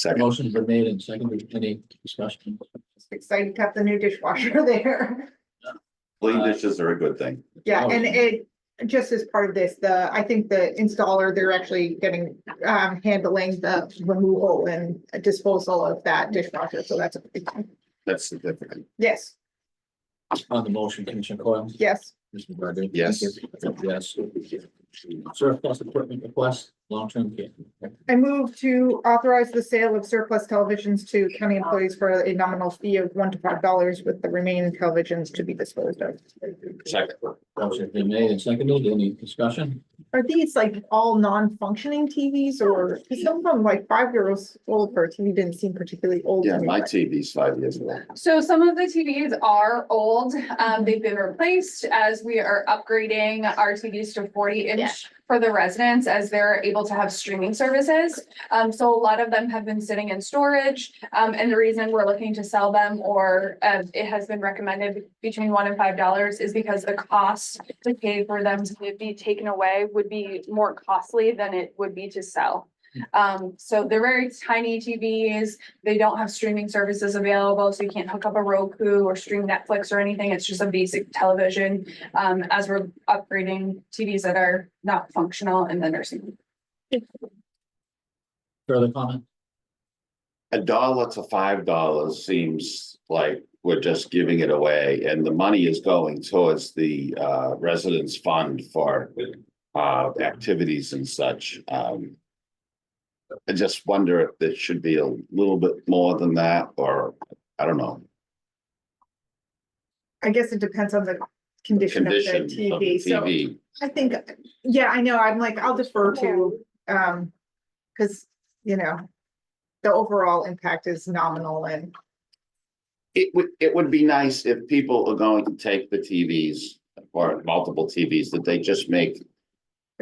Second. Motion's been made and seconded. Any discussion? Excited to have the new dishwasher there. Clean dishes are a good thing. Yeah, and it, just as part of this, the, I think the installer, they're actually getting, um, handling the removal and disposal of that dishwasher, so that's a big thing. That's significant. Yes, On the motion, Commissioner Coyle? yes, Commissioner Godu? Yes. Yes. Surplus equipment request, long-term care. I move to authorize the sale of surplus televisions to county employees for a nominal fee of one to five dollars with the remaining televisions to be disposed of. Second. Motion's been made and seconded. Any discussion? Are these like all non-functioning TVs or 'cause some of them like five years old for a TV didn't seem particularly old? Yeah, to me, my but- TV's five years old. So some of the TVs are old. Um, they've been replaced as we are upgrading our TVs to forty inch for the residents as they're able to have streaming services. Um, so a lot of them have been sitting in storage. Um, and the reason we're looking to sell them or, uh, it has been recommended between one and five dollars is because the cost to pay for them to be taken away would be more costly than it would be to sell. Um, so they're very tiny TVs they don't have streaming services available, so you can't hook up a Roku or stream Netflix or anything. It's just a basic television. Um, as we're upgrading TVs that are not functional in the nursing. home. Further comment? A dollar to five dollars seems like we're just giving it away and the money is going towards the uh residents fund for. Uh, activities and such, um. I just wonder if it should be a little bit more than that or, I don't know, I guess it depends on the condition of the condition of the TV, so TV. I think, yeah, I know, I'm like, I'll defer to, um, cause, you know. The overall impact is nominal and, It would, it would be nice if people are going to take the TVs or multiple TVs, that they just make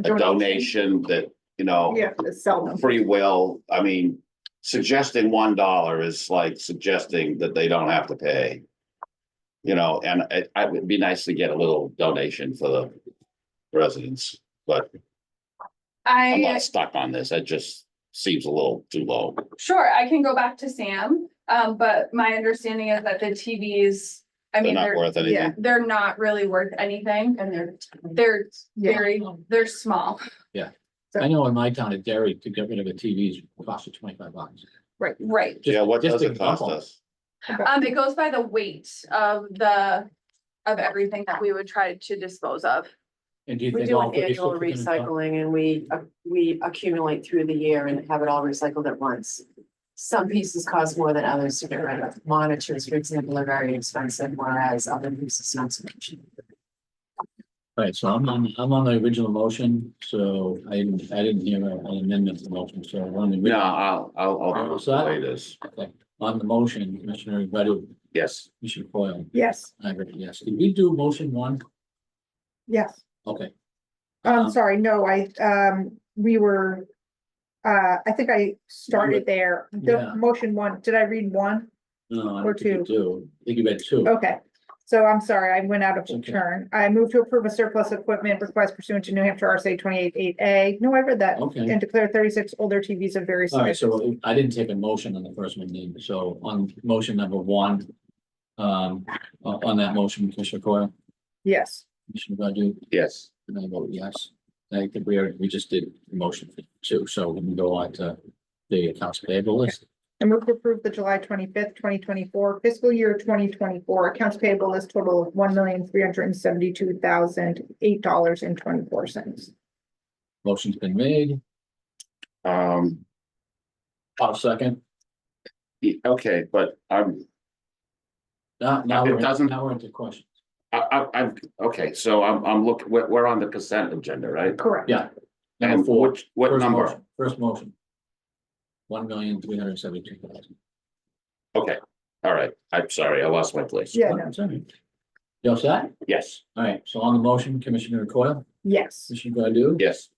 a donation that, you know. yeah, it's seldom, free will, I mean, suggesting one dollar is like suggesting that they don't have to pay. You know, and it, I would be nice to get a little donation for the residents, but I'm I, not stuck on this. That just seems a little too low. sure, I can go back to Sam, um, but my understanding is that the TVs, I They're mean, not they're, worth anything. they're not really worth anything and they're, they're yeah, very, they're small. I know in my town at Derry, to get rid of a TV is cost you twenty-five bucks. Right. Just- Yeah, what just does to it cost bump 'em. us? Um, it goes by the weight of the, of everything that we would try to dispose of. And do you We think? do all an 50 annual should come in? recycling and we, uh, we accumulate through the year and have it all recycled at once. Some pieces cost more than others to get rid of. Monitors, for example, are very expensive, whereas other pieces not so much. All right, so I'm on, I'm on the original motion, so I didn't, I didn't hear an amendment to the motion, so I'm on the. No, original- I'll, I'll, I'll What's that? play this. Okay. On the motion, Commissioner Godu, Yes, Commissioner Coyle, yes, I agree, yes. Did we do motion one? yes. Okay, Um, sorry, no, I, um, we were, uh, I think I started there. Yeah. The motion one, did I read one? no, I Or don't think you do. I think you had two. Okay, so I'm sorry, I went out of Okay. turn. I move to approve a surplus equipment request pursuant to New Hampshire RSA twenty-eight eight A. No, I read that. Okay, Oh, And declare thirty-six older TVs of various all right, sizes. so I didn't take a motion on the first one, Dean. so on motion number one. Um, on on that motion, Commissioner Coyle, Yes, Commissioner Godu, yes. and I vote yes. I think we are, we just did the motion for two, so we can go on to the accounts payable list. I move to approve the July twenty-fifth, twenty twenty-four fiscal year twenty twenty-four accounts payable list total of one million, three hundred and seventy-two thousand, eight dollars and twenty-four cents. Motion's been made, Um, I'll second. e- okay, but I'm, Now, now It we're, doesn't- now we're into questions. I, I, I'm, okay, so I'm, I'm looking, we're, we're on the consent agenda, right? Correct. Yeah. Number And four. which, what first number? motion- First motion. One million, three hundred and seventy-two thousand. Okay, all right. I'm sorry, I lost my place. Yeah, no, You all set? Yes, All right, so on the motion, Commissioner Coyle, yes. Commissioner Godu? yes,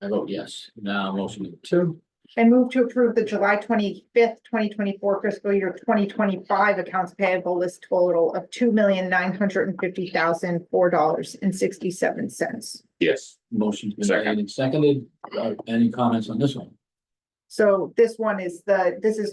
I vote yes. Now, motion number two, I move to approve the July twenty-fifth, twenty twenty-four fiscal year twenty twenty-five accounts payable list total of two million nine hundred and fifty thousand four dollars and sixty-seven cents. yes. motion's been Second. made and seconded. Uh, Any comments on this one? So this one is the, this is